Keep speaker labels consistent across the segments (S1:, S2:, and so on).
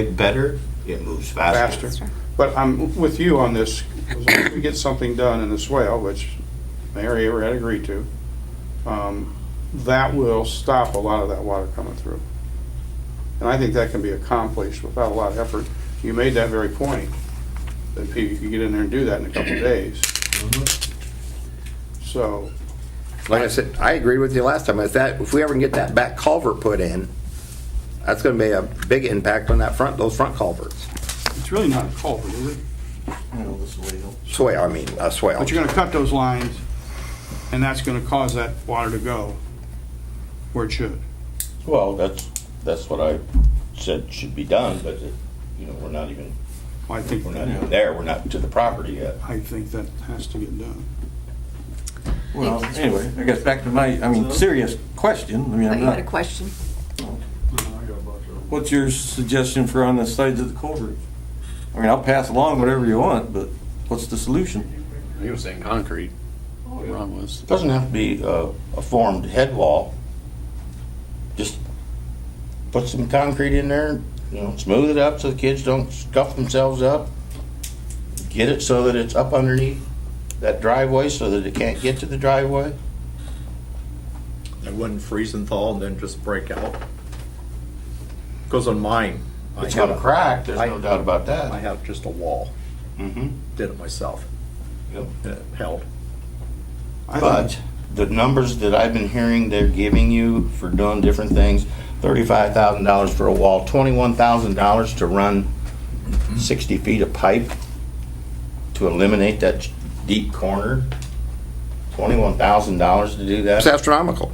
S1: it better, it moves faster.
S2: faster. But I'm with you on this, as long as we get something done in the swale, which Mary ever had agreed to, um, that will stop a lot of that water coming through. And I think that can be accomplished without a lot of effort. You made that very point, that people, you could get in there and do that in a couple of days. So,
S3: Like I said, I agreed with you last time. If that, if we ever can get that back culvert put in, that's gonna be a big impact on that front, those front culverts.
S2: it's really not a culvert, is it?
S3: Swale, I mean, a swale.
S2: But you're gonna cut those lines, and that's gonna cause that water to go where it should.
S1: Well, that's, that's what I said should be done, but, it- you know, we're not even,
S2: I think,
S1: we're not even there, we're not to the property yet.
S2: I think that has to get done.
S4: Well, anyway, I guess back to my, I mean, serious question, I mean,
S5: Thought
S4: I'm
S5: Oh, you had a
S4: not,
S5: question.
S4: what's your suggestion for on the sides of the culvert? I mean, I'll pass along whatever you want, but what's the solution?
S6: He was saying concrete. Ron was.
S1: Doesn't have to be a, a formed head wall. Just put some concrete in there, you know, smooth it up so the kids don't scuff themselves up. Get it so that it's up underneath that driveway so that it can't get to the driveway.
S7: It wouldn't freeze and thaw and then just break out. Because on mine, I
S1: It's
S7: had
S1: gonna
S7: a-
S1: crack, there's no
S7: I-
S1: doubt about
S7: I
S1: that.
S7: had just a wall,
S1: Mm-hmm.
S7: did it myself, and it held.
S2: I think-
S1: But the numbers that I've been hearing they're giving you for doing different things, thirty-five thousand dollars for a wall, twenty-one thousand dollars to run sixty feet of pipe to eliminate that deep corner, twenty-one thousand dollars to do
S3: It's
S1: that.
S3: astronomical.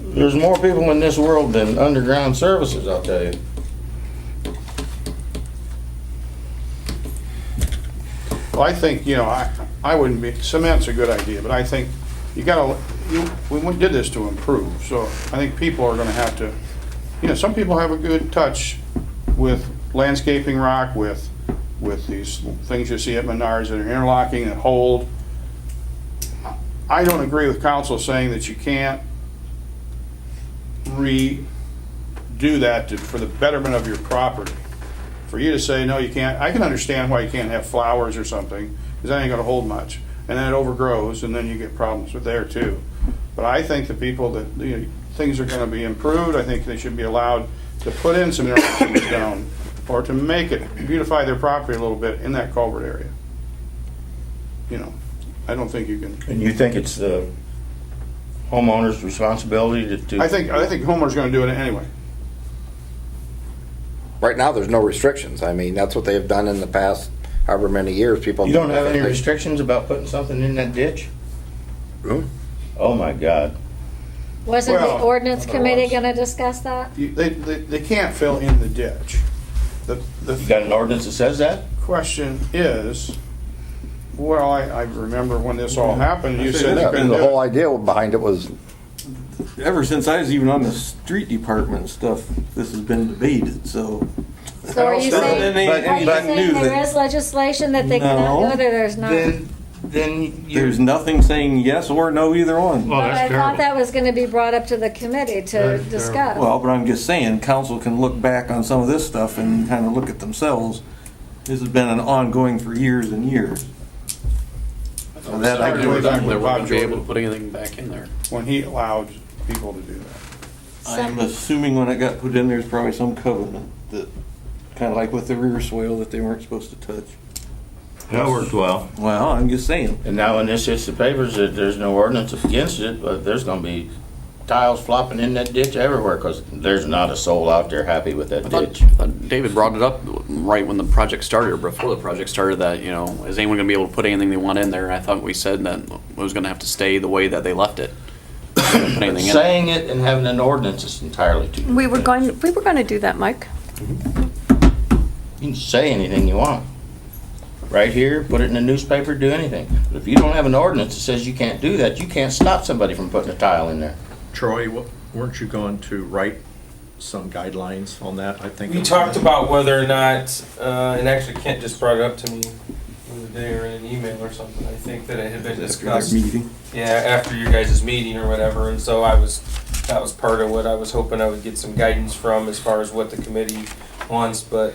S1: There's more people in this world than underground services, I'll tell you.
S2: Well, I think, you know, I, I wouldn't be, cement's a good idea, but I think you gotta, you, we went- did this to improve, so I think people are gonna have to, you know, some people have a good touch with landscaping rock, with, with these things you see at Menards that are interlocking and hold. I don't agree with council saying that you can't redo that to, for the betterment of your property for you to say, no, you can't, I can understand why you can't have flowers or something, because that ain't gonna hold much. And then it overgrows, and then you get problems with there too. But I think the people that, you know, things are gonna be improved, I think they should be allowed to put in some interlocking stone, or to make it, beautify their property a little bit in that culvert area. You know, I don't think you can,
S1: And you think it's the homeowner's responsibility to do?
S2: I think, I think Homer's gonna do it anyway.
S3: Right now, there's no restrictions. I mean, that's what they've done in the past however many years, people.
S1: You don't have any restrictions about putting something in that ditch?
S3: Hmm?
S1: Oh, my God.
S8: Wasn't the
S2: Well,
S8: ordinance committee
S2: otherwise-
S8: gonna discuss that?
S2: You- They, they, they can't fill in the ditch. The, the
S1: You got an ordinance that says that?
S2: question is, well, I, I remember when this all happened, you said.
S3: Yeah,
S2: you couldn't
S3: The
S2: do
S3: whole
S2: it.
S3: idea behind it was,
S4: Ever since I was even on the street department and stuff, this has been debated, so.
S8: So are you
S2: But-
S4: Then
S8: saying,
S4: they-
S1: but-
S8: are you
S4: but-
S8: saying there is legislation that they cannot do
S4: No.
S8: it, or there's not?
S1: Then, then you,
S4: There's nothing saying yes or no either one.
S8: But I thought that was gonna be brought up to the committee to discuss.
S4: Well, but I'm just saying, council can look back on some of this stuff and kind of look at themselves. This has been an ongoing for years and years. So that I
S2: Like
S4: can-
S6: They
S2: way
S6: were
S2: back with Bob
S6: gonna be able
S2: Jordan.
S6: to put anything back in there.
S2: When he allowed people to do that.
S4: I'm assuming when it got put in, there's probably some covenant that, kind of like with the rear swale, that they weren't supposed to touch.
S1: that worked well.
S4: Well, I'm just saying.
S1: And now when this hits the papers, that there's no ordinance against it, but there's gonna be tiles flopping in that ditch everywhere, cause there's not a soul out there happy with that
S6: I
S1: ditch.
S6: thought, I thought David brought it up right when the project started, or before the project started, that, you know, is anyone gonna be able to put anything they want in there? And I thought we said that it was gonna have to stay the way that they left it. Couldn't Put anything in it.
S1: Saying it and having an ordinance is entirely two different
S5: We were
S1: things.
S5: going, we were going to do that, Mike.
S1: You can say anything you want. Right here, put it in the newspaper, do anything. But if you don't have an ordinance that says you can't do that, you can't stop somebody from putting a tile in there.
S7: Troy, wa- weren't you going to write some guidelines on that? I think.
S9: We talked about whether or not, uh, and actually Kent just brought it up to me the other day or in an email or something. I think that it had been
S4: After their
S9: discussed.
S4: meeting.
S9: Yeah, after your guys' meeting or whatever, and so I was, that was part of what I was hoping I would get some guidance from as far as what the committee
S8: once, but